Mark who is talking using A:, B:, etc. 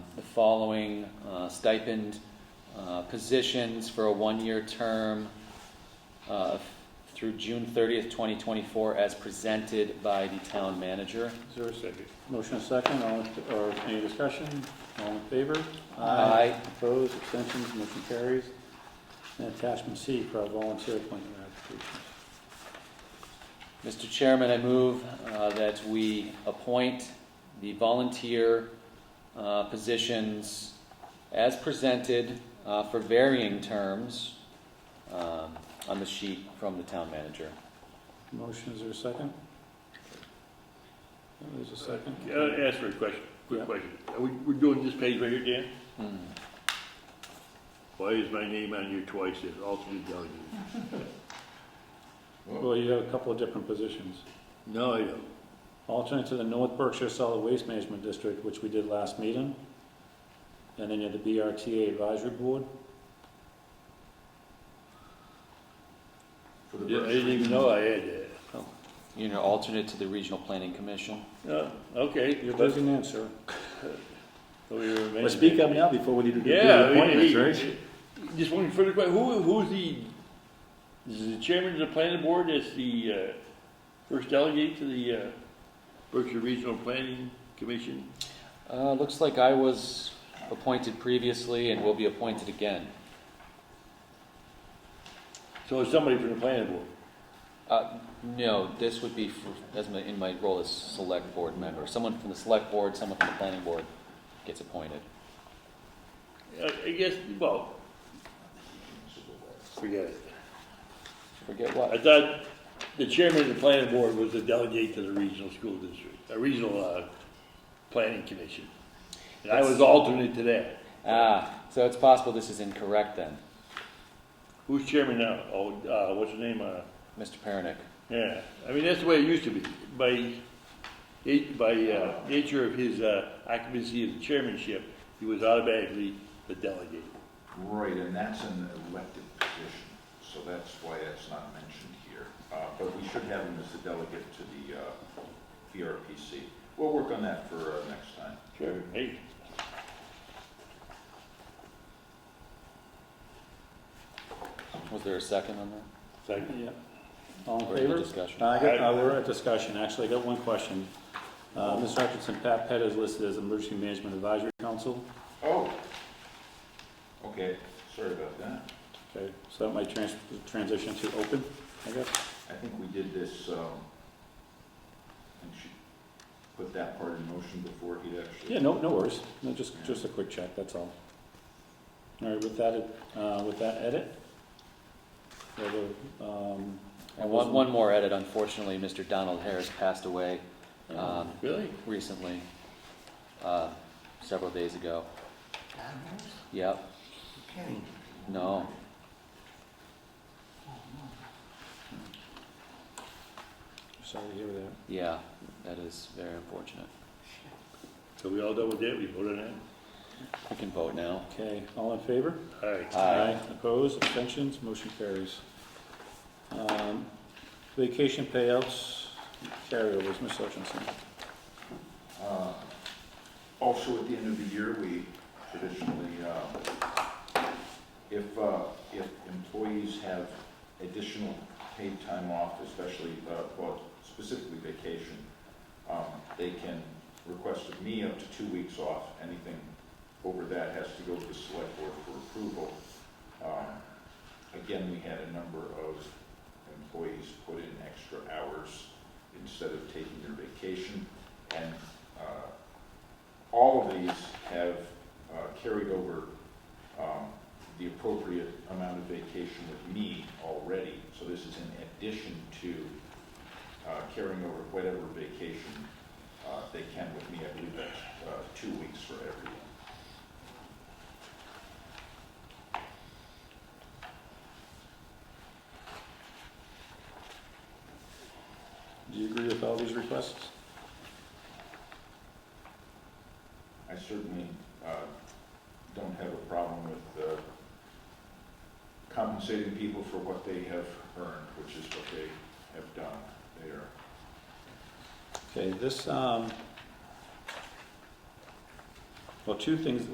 A: following uh, stipend uh, positions for a one-year term uh, through June 30th, 2024, as presented by the town manager.
B: Is there a second?
C: Motion is second, all, in- or any discussion? All in favor?
A: Aye.
C: Opposed, abstentions, motion carries. And attachment C for our volunteer appointment applications.
A: Mr. Chairman, I move uh, that we appoint the volunteer uh, positions as presented uh, for varying terms um, on the sheet from the town manager.
C: Motion, is there a second? There's a second.
B: Uh, ask for a question,
C: Yeah.
B: quick question. Are we, we're doing this page right here, Dan?
A: Hmm.
B: Why is my name on here twice as alternate delegate?
C: Well, you have a couple of different positions.
B: No, I don't.
C: Alternate to the North Berkshire Solid Waste Management District, which we did last meeting. And then you have the BRTA Advisory Board.
D: For the
B: Yeah, I
D: Berkshire.
B: didn't even know I had that.
A: You know, alternate to the Regional Planning Commission.
B: No, okay.
C: You're
B: but-
C: losing an answer.
B: so we remain-
C: Well, speak up now before we need to do
B: Yeah.
C: the
B: I mean,
C: appointments,
B: he-
C: right?
B: Just one further question. Who, who's the, is the chairman of the planning board as the, uh, first delegate to the, uh, Berkshire Regional Planning Commission?
A: Uh, Looks like I was appointed previously and will be appointed again.
B: So it's somebody from the planning board.
A: Uh, No, this would be for- as my- in my role as Select Board member. Someone from the Select Board, someone from the Planning Board gets appointed.
B: I, I guess, well, forget it.
A: Forget
B: I
A: what.
B: thought the chairman of the planning board was the delegate to the regional school district, a regional, uh, planning commission. And I was alternate to that.
A: Ah, so it's possible this is incorrect then,
B: Who's chairman now? Oh, uh, what's his name, uh?
A: Mr. Pernick.
B: Yeah, I mean, that's the way it used to be. By, it- by uh, nature of his uh, occupancy of the chairmanship, he was automatically the delegate.
D: Right, and that's an elected position, so that's why that's not mentioned here. Uh, But we should have him as the delegate to the uh, BRPC. We'll work on that for uh, next time.
B: Sure. Hey,
A: Was there a second on that?
B: second.
C: Yeah. All in
A: Or any
C: favor?
A: discussion?
C: I got, uh, we're at discussion, actually, I got one question. Uh, Ms. Hutchinson, Pat Pett is listed as Emergency Management Advisory Council.
D: Oh, okay, sorry about that.
C: Okay, so that might trans, transition to open, I guess.
D: I think we did this, um, I think she put that part in motion before he actually.
C: Yeah, no, no worries, no, just, just a quick check, that's all. All right, with that, uh, with that edit? we have a, um,
A: And one, one more edit, unfortunately, Mr. Donald Harris passed away um,
B: Really?
A: recently, uh, several days ago. Yep, no.
C: Sorry to hear that.
A: Yeah, that is very unfortunate.
B: So we all done with that? We voted on
A: We can vote now.
C: Okay, all in favor?
B: that? All right.
A: Aye.
C: Opposed, abstentions, motion carries. Um, Vacation payouts, carryovers, Ms. Hutchinson.
D: Uh, Also, at the end of the year, we traditionally, uh, if, uh, if employees have additional paid time off, especially, uh, well, specifically vacation, um, they can request of me up to two weeks off. Anything over that has to go to the select board for approval. Um, Again, we had a number of employees put in extra hours instead of taking their vacation. And uh, all of these have uh, carried over um, the appropriate amount of vacation with me already. So this is in addition to uh, carrying over whatever vacation uh, they can with me. I believe that's uh, two weeks for everyone.
C: Do you agree with all these requests?
D: I certainly uh, don't have a problem with uh, compensating people for what they have earned, which is what they have done. They are
C: Okay, this, um, well, two things,